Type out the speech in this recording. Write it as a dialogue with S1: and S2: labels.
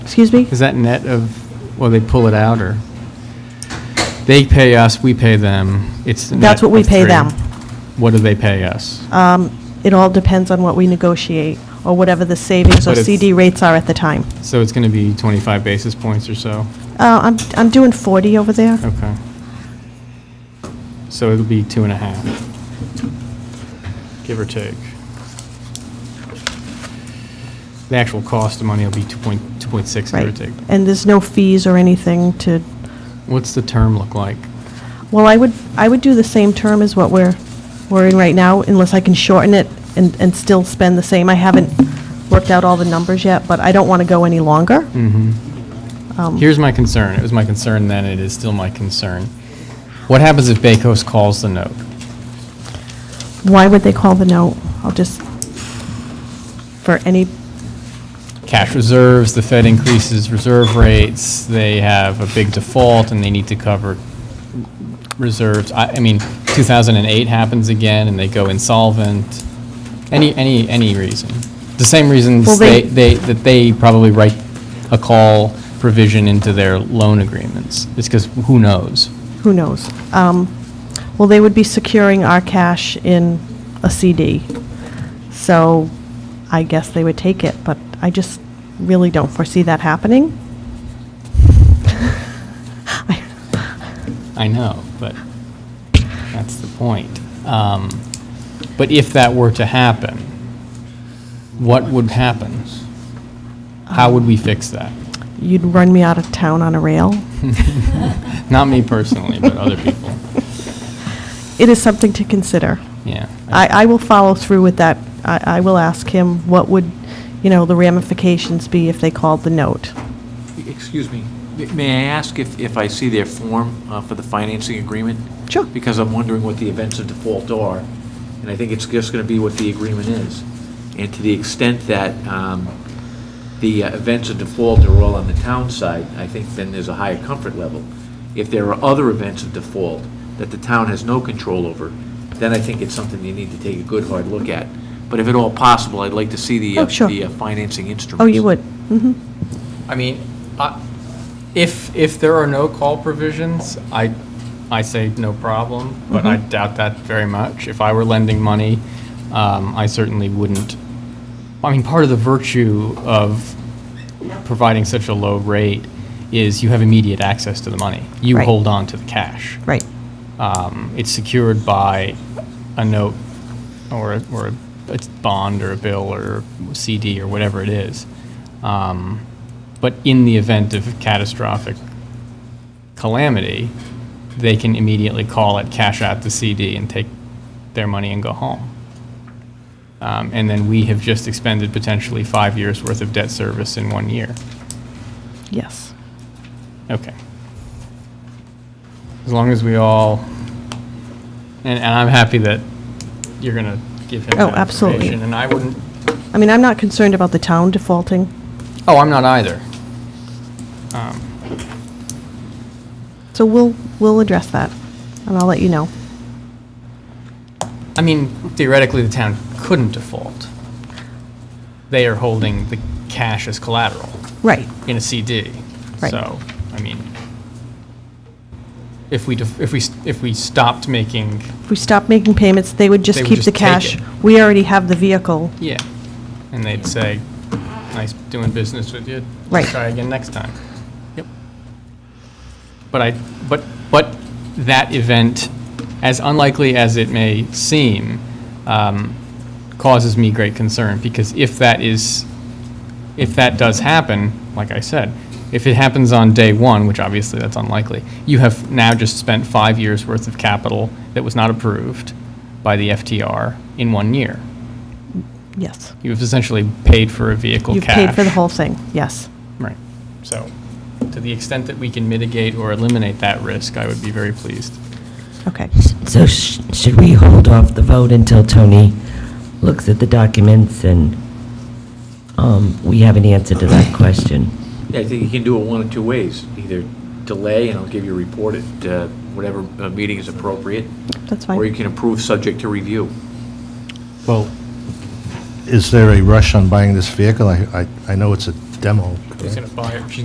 S1: Excuse me?
S2: Is that net of, well, they pull it out, or? They pay us, we pay them. It's the net
S1: That's what we
S2: of
S1: pay
S2: three.
S1: them. Uh,
S2: What do they pay us?
S1: Um, It all depends on what we negotiate, or whatever the savings or
S2: But it's-
S1: CD rates are at the time.
S2: So it's going to be 25 basis points or so?
S1: Uh, I'm, I'm doing 40 over there.
S2: Okay. So it'll be two and a half, give or take. The actual cost of money will be 2.6, give or
S1: Right.
S2: take.
S1: And there's no fees or anything to,
S2: What's the term look like?
S1: well, I would, I would do the same term as what we're, we're in right now, unless I can shorten it and, and still spend the same. I haven't worked out all the numbers yet, but I don't want to go any longer.
S2: Hmm. Here's my concern. It was my concern then, it is still my concern. What happens if Bakos calls the note?
S1: Why would they call the note? I'll just, for any,
S2: Cash reserves, the Fed increases reserve rates, they have a big default, and they need to cover reserves. I, I mean, 2008 happens again, and they go insolvent. Any, any, any reason. The same
S1: Well,
S2: reasons
S1: they-
S2: they, they, that they probably write a call provision into their loan agreements. It's because who knows?
S1: who knows? Um, Well, they would be securing our cash in a CD. So I guess they would take it, but I just really don't foresee that happening. I-
S2: I know, but that's the point. Um, But if that were to happen, what would happen? How would we fix that?
S1: You'd run me out of town on a rail.
S2: Not me personally, but other people.
S1: It is something to consider.
S2: Yeah.
S1: I, I will follow through with that. I, I will ask him what would, you know, the ramifications be if they called the note.
S3: Excuse me, may I ask if, if I see their form uh, for the financing agreement?
S1: Sure.
S3: Because I'm wondering what the events of default are, and I think it's just going to be what the agreement is. And to the extent that um, the uh, events of default are all on the town side, I think then there's a higher comfort level. If there are other events of default that the town has no control over, then I think it's something you need to take a good, hard look at. But if at all possible, I'd like to see the, uh,
S1: Oh, sure.
S3: the uh, financing instruments.
S1: Oh, you would?
S2: I mean, I- if, if there are no call provisions, I, I say no problem, but I doubt that very much. If I were lending money, um, I certainly wouldn't. I mean, part of the virtue of providing such a low rate is you have immediate access to the money. You
S1: Right.
S2: hold on to the cash.
S1: Right.
S2: Um, It's secured by a note or, a- or a bond or a bill or CD or whatever it is. Um, But in the event of catastrophic calamity, they can immediately call it, cash out the CD and take their money and go home. Um, And then we have just expended potentially five years' worth of debt service in one year.
S1: Yes.
S2: Okay. As long as we all, and, and I'm happy that you're gonna give him
S1: Oh,
S2: that
S1: absolutely.
S2: information, and I wouldn't,
S1: I mean, I'm not concerned about the town defaulting,
S2: oh, I'm not either. Um,
S1: so we'll, we'll address that, and I'll let you know.
S2: I mean, theoretically, the town couldn't default. They are holding the cash as collateral
S1: Right.
S2: in a CD.
S1: Right.
S2: So, I mean, if we, def- if we, s- if we stopped making,
S1: If we stop making payments, they would
S2: They
S1: just
S2: would
S1: keep
S2: just
S1: the
S2: take
S1: cash.
S2: it.
S1: We already have the vehicle.
S2: yeah, and they'd say, nice doing business with you.
S1: Right.
S2: Try again next time. Yep. But I, but, but that event, as unlikely as it may seem, um, causes me great concern, because if that is, if that does happen, like I said, if it happens on day one, which obviously that's unlikely, you have now just spent five years' worth of capital that was not approved by the FTR in one year.
S1: Yes.
S2: You've essentially paid for a vehicle
S1: You've
S2: cash.
S1: paid for the whole thing, yes.
S2: Right. So, to the extent that we can mitigate or eliminate that risk, I would be very pleased.
S1: Okay.
S4: So sh- should we hold off the vote until Tony looks at the documents and um, we have an answer to that question?
S3: Yeah, I think you can do it one of two ways. Either delay, and I'll give you a report at uh, whatever uh, meeting is appropriate,
S1: That's
S3: or you
S1: fine.
S3: can approve subject to review.
S5: Well, is there a rush on buying this vehicle? I, I, I know it's a demo.
S2: She's going to buy it. She's